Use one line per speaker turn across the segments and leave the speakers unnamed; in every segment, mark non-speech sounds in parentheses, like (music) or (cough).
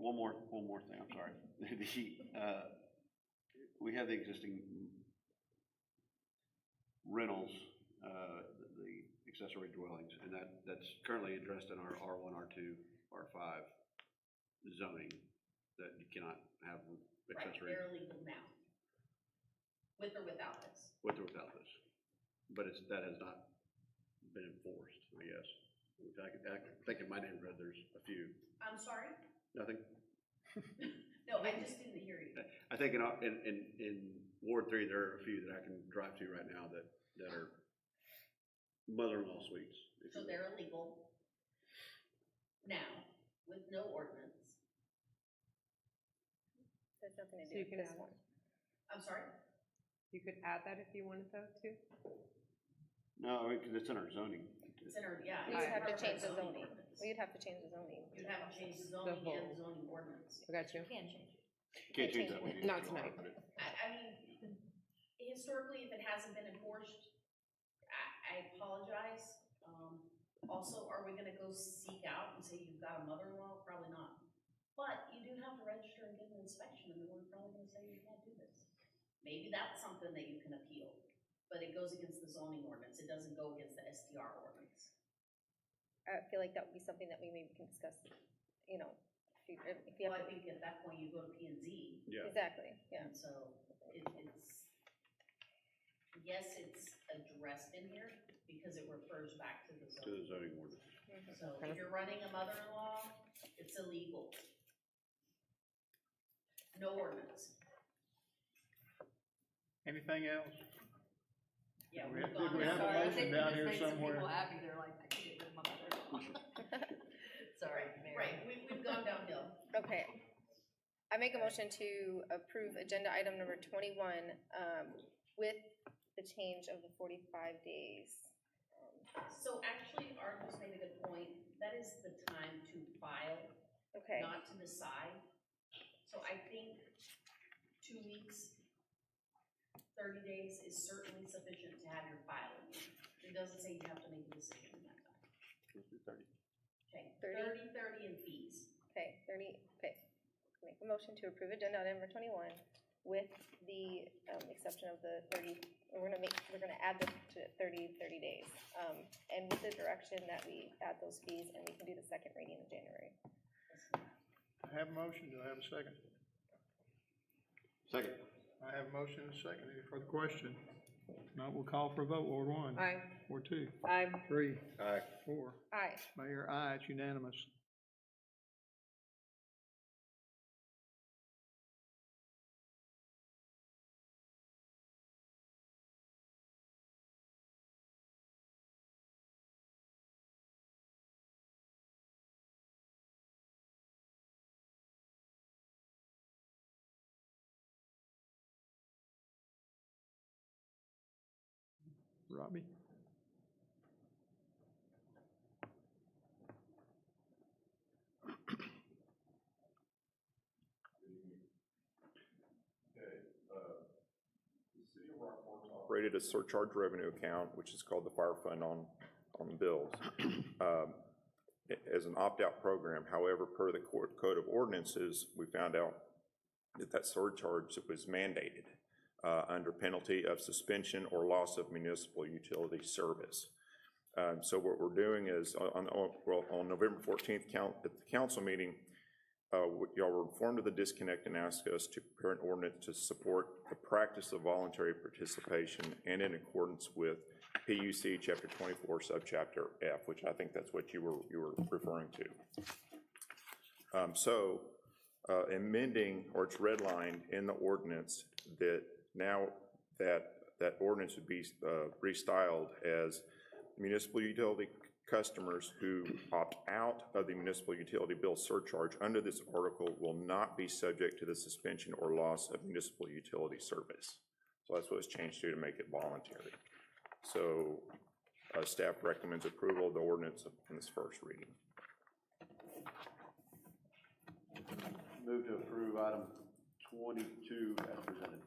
one more, one more thing, I'm sorry. (laughs) The, uh, we have the existing rentals, uh, the accessory dwellings, and that, that's currently addressed in our R one, R two, R five zoning, that you cannot have
Right,
accessory
they're illegal now. With or without this.
with or without this. But it's, that has not been enforced, I guess. In fact, I think in my neighborhood, there's a few,
I'm sorry?
nothing,
No, I just didn't hear you.
I think in, uh, in, in, in Ward Three, there are a few that I can drive to right now that, that are mother-in-law suites. if
So
you will.
they're illegal now with no ordinance.
That's nothing to
So
do
you
with
can
this
add
one.
I'm sorry?
You could add that if you wanted though, too.
No, I mean, 'cause it's in our zoning.
It's in our, yeah.
We
it's
would have
part of
to
our
change the zoning.
ordinance.
We'd have to change the zoning.
You'd have to change the
The
zoning and
whole-
the zoning ordinance.
I got you.
Can change it.
Can't change that. one.
Not tonight.
I, I mean, historically, if it hasn't been enforced, I, I apologize. Um, also, are we gonna go seek out and say you've got a mother-in-law? Probably not. But you do have to register and get an inspection, and we're probably gonna say you can't do this. Maybe that's something that you can appeal, but it goes against the zoning ordinance. It doesn't go against the SDR ordinance.
I feel like that would be something that we maybe can discuss, you know, if you, if you
Well, I
have,
think at that point, you go to P and Z,
Yeah,
exactly, yeah.
And so it, it's, yes, it's addressed in here because it refers back to the
to the
zone.
zoning ordinance.
Mhm.
So if you're running a mother-in-law, it's illegal. No ordinance.
Anything else?
Yeah,
We
we've
have-
gone
we
as
have a
far as-
motion
think it
down
just
here
makes some
somewhere.
People happy, they're like, I can get rid of my mother-in-law. Sorry, Mayor.
Right, we, we've gone downhill.
Okay. I make a motion to approve agenda item number twenty-one, um, with the change of the forty-five days. Um,
So actually, Art just made a good point. That is the time to file,
Okay,
not to decide. So I think two weeks, thirty days is certainly sufficient to have your filing. It doesn't say you have to make a decision in that time.
Let's do thirty.
Okay,
Thirty?
thirty, thirty and fees.
okay, thirty, okay. Make a motion to approve agenda item number twenty-one with the, um, exception of the thirty, we're gonna make, we're gonna add this to 30 30 days. Um, and with the direction that we add those fees and we can do the second reading in January.
I have a motion, do I have a second?
Second.
I have a motion and a second, any further question? If Not, we'll call for a vote, Ward one.
Aye.
Ward two.
Aye.
Three.
Aye.
Four.
Aye.
Mayor, aye, it's unanimous. Robbie?
created a surcharge revenue account, which is called the fire fund on, on bills, um, a- as an opt-out program. However, per the court code of ordinances, we found out that that surcharge was mandated uh, under penalty of suspension or loss of municipal utility service. Um, So what we're doing is, on- on, on- well, on November 14th, count, at the council meeting, uh, what y'all were informed of the disconnect and asked us to prepare an ordinance to support the practice of voluntary participation and in accordance with PUC Chapter 24, Subchapter F, which I think that's what you were, you were referring to. Um, So uh, amending, or it's redlined in the ordinance that now that, that ordinance would be uh, restyled as municipal utility customers who opt out of the municipal utility bill surcharge under this article will not be subject to the suspension or loss of municipal utility service. So that's what it's changed to, to make it voluntary. So, uh, staff recommends approval of the ordinance in this first reading.
Move to approve item twenty-two as presented.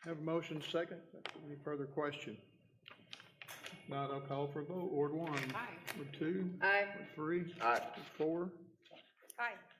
Have a motion second. Any further question? If Not, I'll call for a vote. Ward one.
Aye.
Ward two.
Aye.
Ward three.
Aye.
Ward four.
Aye.